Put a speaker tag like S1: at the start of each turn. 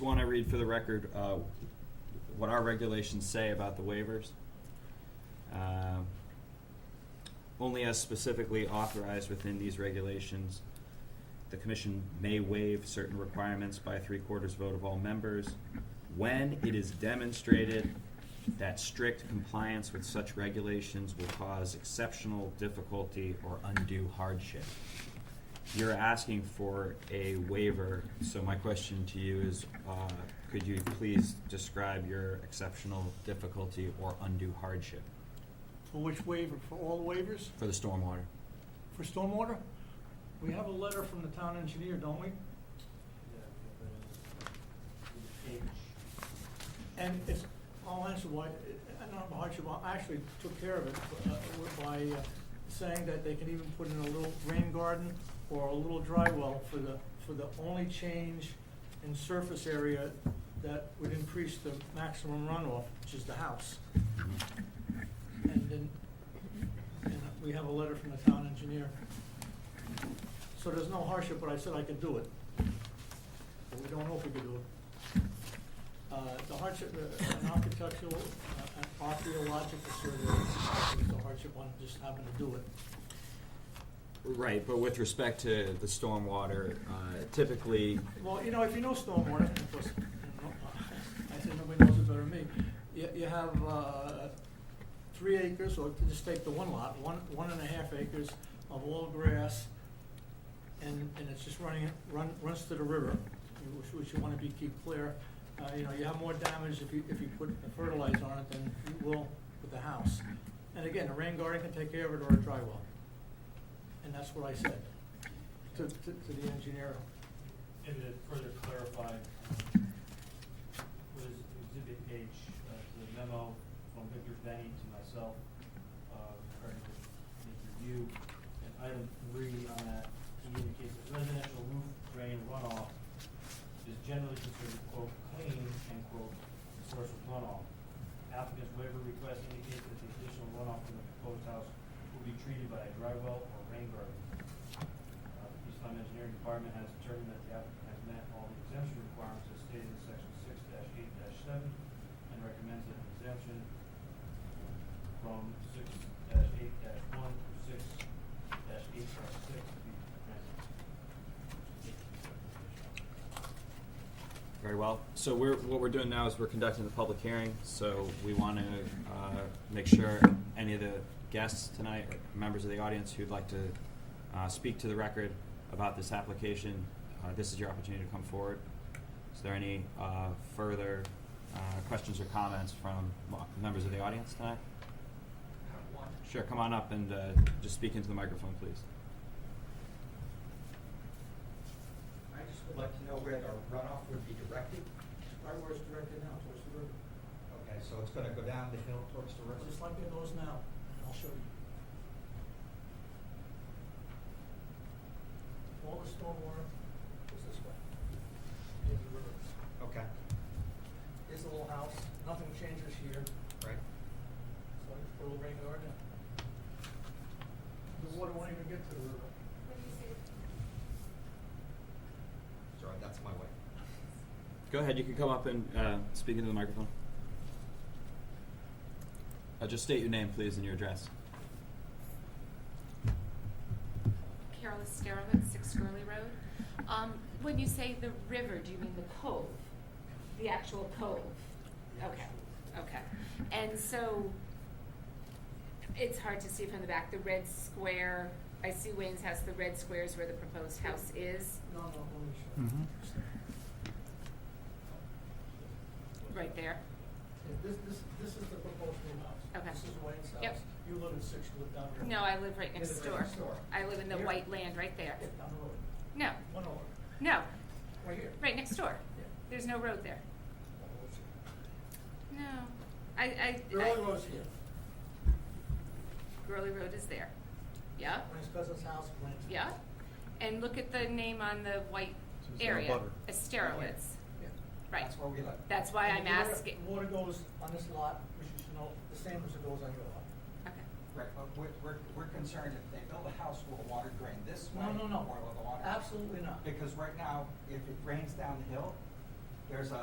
S1: want to read for the record uh, what our regulations say about the waivers. Um, Only as specifically authorized within these regulations, the commission may waive certain requirements by a three-quarters vote of all members when it is demonstrated that strict compliance with such regulations will cause exceptional difficulty or undue hardship. You're asking for a waiver, so my question to you is, uh, could you please describe your exceptional difficulty or undue hardship
S2: For which waiver? For all waivers?
S1: for the stormwater?
S2: For stormwater? We have a letter from the town engineer, don't we? And it's, I'll answer why, I don't have a hardship, I actually took care of it uh, by uh, saying that they can even put in a little rain garden or a little dry well for the, for the only change in surface area that would increase the maximum runoff, which is the house. And then, and we have a letter from the town engineer. So there's no hardship, but I said I could do it. But we don't know if we could do it. Uh, the hardship, uh, an architectural, uh, an archaeological survey is the hardship one, just happened to do it.
S1: Right, but with respect to the stormwater, uh, typically,
S2: Well, you know, if you know stormwater, of course, you know, I think nobody knows it better than me. You, you have, uh, three acres, or just take the one lot, one, one and a half acres of all grass, and, and it's just running, run, runs to the river, you- which, which you wanna be, keep clear. Uh, you know, you have more damage if you, if you put fertilizer on it than you will with the house. And again, a rain garden can take care of it or a dry well. And that's what I said to, to, to the engineer.
S3: And to further clarify, um, was exhibit H, uh, to the memo from Victor Benny to myself, uh, regarding the the review. And item three on that, he indicates that residential roof drain runoff is generally considered quote clean end quote source of runoff. Applicant's waiver request indicates that the additional runoff from the proposed house will be treated by a dry well or rain garden. Uh, the East Lyme Engineering Department has determined that the applicant has met all the exemption requirements as stated in section six eight seven and recommends an exemption from six eight one through six eight six to be granted.
S1: very well. So we're, what we're doing now is we're conducting the public hearing, so we want to uh, make sure any of the guests tonight, or members of the audience who'd like to uh, speak to the record about this application, uh, this is your opportunity to come forward. Is there any uh, further uh, questions or comments from mo- members of the audience tonight? Sure, come on up and uh, just speak into the microphone, please.
S4: I just would like to know where the runoff would be directed.
S2: Right where it's directed now, towards the river,
S4: Okay, so it's gonna go down the hill towards the river?
S2: just like it goes now, and I'll show you. All the stormwater is this way, in the river.
S4: Okay,
S2: Here's the little house, nothing changes here, so
S4: right.
S2: I just put a little rain garden. The water won't even get to the river.
S4: Sorry, that's my way.
S1: Go ahead, you can come up and uh, speak into the microphone. Uh, just state your name, please, and your address.
S5: Carol Esterowitz, Six Gurley Road. Um, when you say the river, do you mean the cove? The actual cove? Okay, okay. And so, it's hard to see from the back, the red square, I see Wayne's house, the red square is where the proposed house is,
S2: No, no, let me show you.
S1: Mhm.
S5: right there.
S2: Yeah, This, this, this is the proposed new house.
S5: Okay.
S2: This is Wayne's house.
S5: Yep.
S2: You live in six, you live down here.
S5: No, I live right
S4: You
S5: next
S4: live right
S5: door.
S4: next door.
S5: I live in the
S2: Here?
S5: white land right there.
S2: Yeah, down the road,
S5: No,
S2: one over,
S5: no,
S2: right here.
S5: right next door.
S2: Yeah.
S5: There's no road there.
S2: One road's here.
S5: No. I, I.
S2: The
S5: I-
S2: only road's here.
S5: Gurley Road is there. Yeah,
S2: Wayne's cousin's house, Wayne's.
S5: yeah. And look at the name on the white area, Asterowitz.
S2: Yeah.
S5: Right.
S4: That's where we live.
S5: That's why
S2: And
S5: I'm
S2: the water-
S5: asking.
S2: Water goes on this lot, which you should know, the same as it goes on your lot.
S5: Okay.
S4: Right, but we're, we're, we're concerned if they build a house, will the water drain this way?
S2: No, no, no.
S4: Or will the water?
S2: Absolutely not.
S4: Because right now, if it drains down the hill, there's a